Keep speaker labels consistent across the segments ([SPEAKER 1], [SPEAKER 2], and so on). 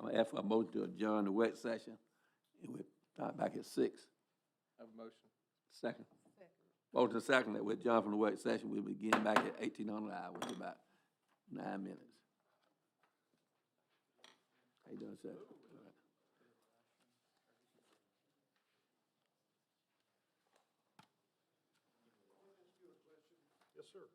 [SPEAKER 1] I'll ask for a motion to adjourn the work session, and we'll start back at six.
[SPEAKER 2] Have a motion.
[SPEAKER 1] Second. Motion second that we adjourn from the work session, we begin back at eighteen hundred hour, which is about nine minutes. How you doing, sir?
[SPEAKER 3] Yes, sir.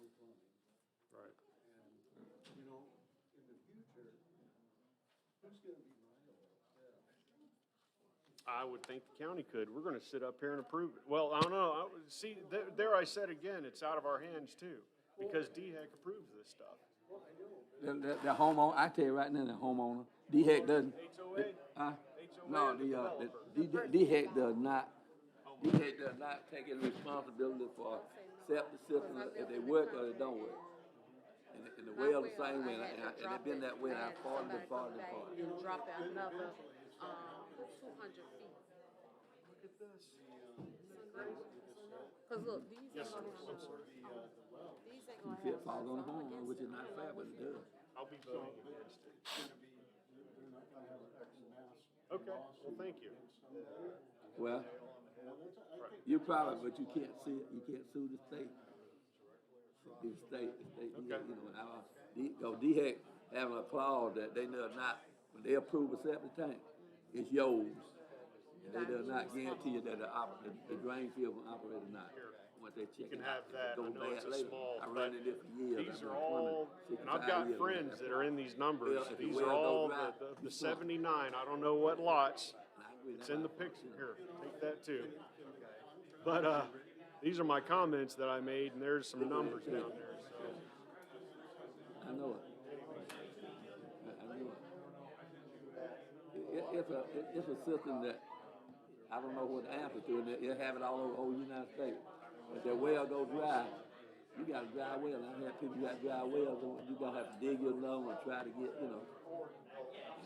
[SPEAKER 3] Right.
[SPEAKER 4] you know, in the future, who's gonna be liable?
[SPEAKER 3] I would think the county could. We're gonna sit up here and approve it. Well, I don't know. I, would- see, there, there I said again, it's out of our hands too, because DHEC approves this stuff.
[SPEAKER 1] The, the, the homeowner, I tell you right now, the homeowner, DHEC doesn't.
[SPEAKER 3] HOA?
[SPEAKER 1] Huh?
[SPEAKER 3] HOA
[SPEAKER 1] No,
[SPEAKER 3] and the
[SPEAKER 1] the, uh,
[SPEAKER 3] developer.
[SPEAKER 1] the, DHEC does not, DHEC does not take any responsibility for septic systems if they work or they don't work. And, and the well the same way, and I- and I- and it been that way, and I fought it, and fought it, and fought it.
[SPEAKER 5] And drop it another, um, two hundred feet. Cause look, these ain't gonna have no, these ain't gonna have.
[SPEAKER 1] It falls on the
[SPEAKER 5] no- so I'm
[SPEAKER 1] homeowner,
[SPEAKER 5] against
[SPEAKER 1] which
[SPEAKER 5] it.
[SPEAKER 1] is not fair, but it does.
[SPEAKER 3] I'll be voting against it.
[SPEAKER 4] They're not gonna have X mass.
[SPEAKER 3] Okay, well, thank you.
[SPEAKER 1] Well, you probably, but you can't sue, you can't sue the state. The state, the state, you know,
[SPEAKER 3] Okay.
[SPEAKER 1] you know, and I, D, go DHEC having a clause that they know not, when they approve a septic tank, it's yours. And they do not guarantee you that the op, the- the drain field will operate or not, once they check it out.
[SPEAKER 3] You can have
[SPEAKER 1] if it
[SPEAKER 3] that. I
[SPEAKER 1] goes
[SPEAKER 3] know it's
[SPEAKER 1] bad
[SPEAKER 3] a
[SPEAKER 1] later.
[SPEAKER 3] small,
[SPEAKER 1] I
[SPEAKER 3] but
[SPEAKER 1] run it for years.
[SPEAKER 3] these
[SPEAKER 1] I've
[SPEAKER 3] are
[SPEAKER 1] been plumbing
[SPEAKER 3] all, and I've
[SPEAKER 1] 65
[SPEAKER 3] got
[SPEAKER 1] years.
[SPEAKER 3] friends that are in these numbers.
[SPEAKER 1] Well, if the
[SPEAKER 3] These
[SPEAKER 1] well
[SPEAKER 3] are
[SPEAKER 1] don't
[SPEAKER 3] all the,
[SPEAKER 1] dry,
[SPEAKER 3] the- the
[SPEAKER 1] it's not.
[SPEAKER 3] seventy-nine, I don't know what lots.
[SPEAKER 1] And I agree,
[SPEAKER 3] It's
[SPEAKER 1] that's
[SPEAKER 3] in the
[SPEAKER 1] why I
[SPEAKER 3] picture here. Take that too. But, uh, these are my comments that I made and there's some numbers down there, so.
[SPEAKER 1] I know it. I- I know it. It, it- it's a, it- it's a system that, I don't know what the answer to, and it, it have it all over the whole United States. If that well go dry, you got a dry well, I've had people got dry wells, and you gonna have to dig your lung and try to get, you know,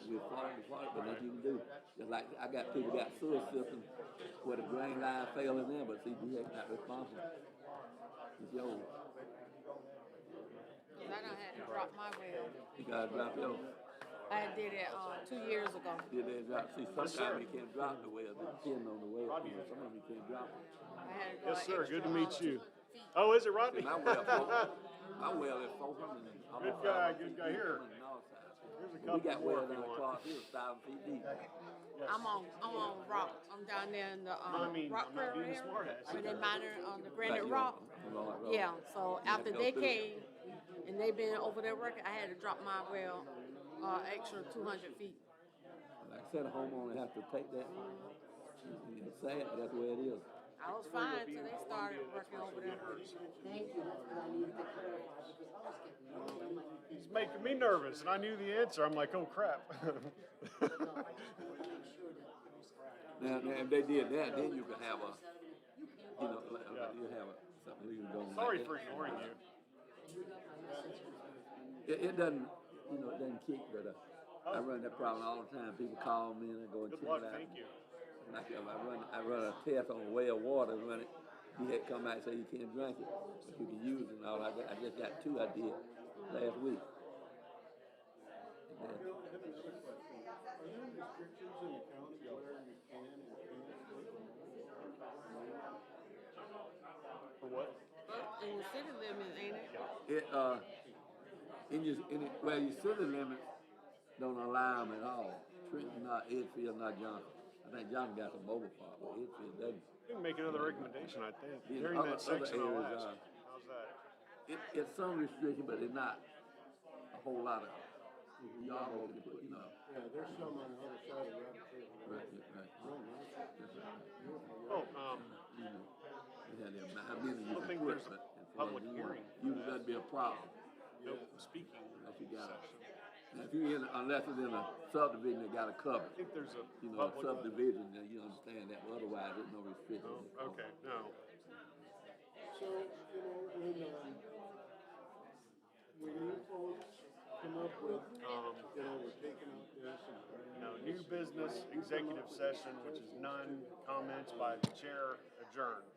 [SPEAKER 1] we're falling apart, but nothing you can do. Just like, I got people got sewer systems where the drain line failing in, but see, you ain't not responsible. It's yours,
[SPEAKER 5] Cause I done had to drop my well.
[SPEAKER 1] you gotta drop yours.
[SPEAKER 5] I did it, um, two years ago.
[SPEAKER 1] Yeah, they drop, see, sometimes you can't drop the well, they depend on the well, you know, some of them you can't drop it.
[SPEAKER 5] I had to go an
[SPEAKER 3] Yes, sir.
[SPEAKER 5] extra,
[SPEAKER 3] Good to
[SPEAKER 5] um,
[SPEAKER 3] meet you.
[SPEAKER 5] 200 feet.
[SPEAKER 3] Oh, is it
[SPEAKER 1] See,
[SPEAKER 3] Rodney?
[SPEAKER 1] my well, four- my well is four hundred and. almost
[SPEAKER 3] Good guy,
[SPEAKER 1] 500 feet
[SPEAKER 3] good guy.
[SPEAKER 1] deep
[SPEAKER 3] Here.
[SPEAKER 1] on the north side.
[SPEAKER 3] Here's a
[SPEAKER 1] We
[SPEAKER 3] couple
[SPEAKER 1] got
[SPEAKER 3] more
[SPEAKER 1] well
[SPEAKER 3] if you
[SPEAKER 1] down
[SPEAKER 3] want.
[SPEAKER 1] across here, thousand feet deep.
[SPEAKER 5] I'm on, I'm on rock. I'm down there in the,
[SPEAKER 3] I mean,
[SPEAKER 5] um, rock
[SPEAKER 3] I'm not being
[SPEAKER 5] quarry
[SPEAKER 3] a smartass.
[SPEAKER 5] area, where they mine on the
[SPEAKER 1] Like
[SPEAKER 5] granite
[SPEAKER 1] you
[SPEAKER 5] rock.
[SPEAKER 1] on- on Rock Road.
[SPEAKER 5] Yeah, so
[SPEAKER 1] You have
[SPEAKER 5] after
[SPEAKER 1] to go
[SPEAKER 5] they
[SPEAKER 1] through.
[SPEAKER 5] came, and they been over their record, I had to drop my well, uh, extra two hundred feet.
[SPEAKER 1] Like I said, a homeowner has to take that, and it's sad, but that's the way it is.
[SPEAKER 5] I was fine till they started working over there.
[SPEAKER 6] Thank you, that's what I needed to clarify, because I was getting worried, I'm like,
[SPEAKER 3] He's making me nervous and I knew the answer. I'm like, oh crap.
[SPEAKER 6] no, I just wanted to make sure that it was correct.
[SPEAKER 1] Now, now, if they did that, then you could have a,
[SPEAKER 6] You can't,
[SPEAKER 1] you know, like- like you have a, something you can go. on
[SPEAKER 3] Sorry
[SPEAKER 1] like
[SPEAKER 3] for
[SPEAKER 1] that.
[SPEAKER 3] ignoring you.
[SPEAKER 6] you got my message,
[SPEAKER 1] It, it doesn't, you know, it doesn't kick, but uh, I run that problem all the time. People call me and I go and
[SPEAKER 3] Good
[SPEAKER 1] check
[SPEAKER 3] luck.
[SPEAKER 1] it out.
[SPEAKER 3] Thank you.
[SPEAKER 1] And I, I run, I run a test on well water, and run it. He had come out and say you can't drink it, but you can use it and all. I, got, I just got two I did last week. And
[SPEAKER 4] I
[SPEAKER 1] then-
[SPEAKER 4] have another question. Are there restrictions in the county where you can and can't put
[SPEAKER 3] For what?
[SPEAKER 5] In the city limits, ain't it?
[SPEAKER 1] it, uh, in your, in it, well, your city limits don't allow them at all. Trenton, not Edfield, not Johnson. I think Johnson got the mobile part, but Edfield doesn't.
[SPEAKER 3] You can make another recommendation, I think.
[SPEAKER 1] Yeah,
[SPEAKER 3] During
[SPEAKER 1] other-
[SPEAKER 3] that section,
[SPEAKER 1] other
[SPEAKER 3] I'll
[SPEAKER 1] areas,
[SPEAKER 3] ask.
[SPEAKER 1] uh,
[SPEAKER 3] How's that?
[SPEAKER 1] It, it's some restriction, but it's not a whole lot of, y'all, you know.
[SPEAKER 4] Mm-hmm. Yeah, there's some on the other side of Rabbit Trail.
[SPEAKER 1] Right, right, right. That's right.
[SPEAKER 3] Oh, um,
[SPEAKER 1] You know, we had them, how many you can
[SPEAKER 3] don't think
[SPEAKER 1] quit,
[SPEAKER 3] there's a
[SPEAKER 1] but. if they
[SPEAKER 3] public
[SPEAKER 1] do,
[SPEAKER 3] hearing.
[SPEAKER 1] You, that'd be a problem,
[SPEAKER 3] no speaking.
[SPEAKER 1] if you got, a- if you in, unless it's in a subdivision that got a cover,
[SPEAKER 3] I think there's
[SPEAKER 1] you
[SPEAKER 3] a
[SPEAKER 1] know, a
[SPEAKER 3] public,
[SPEAKER 1] subdivision, then you understand that, but otherwise, there's no restrictions.
[SPEAKER 3] Oh, okay, no.
[SPEAKER 4] So, you know, when, um, when you folks come up with, you know, we're taking out this and.
[SPEAKER 3] Um, No, new business, executive session, which is none, comments by the chair, adjourned.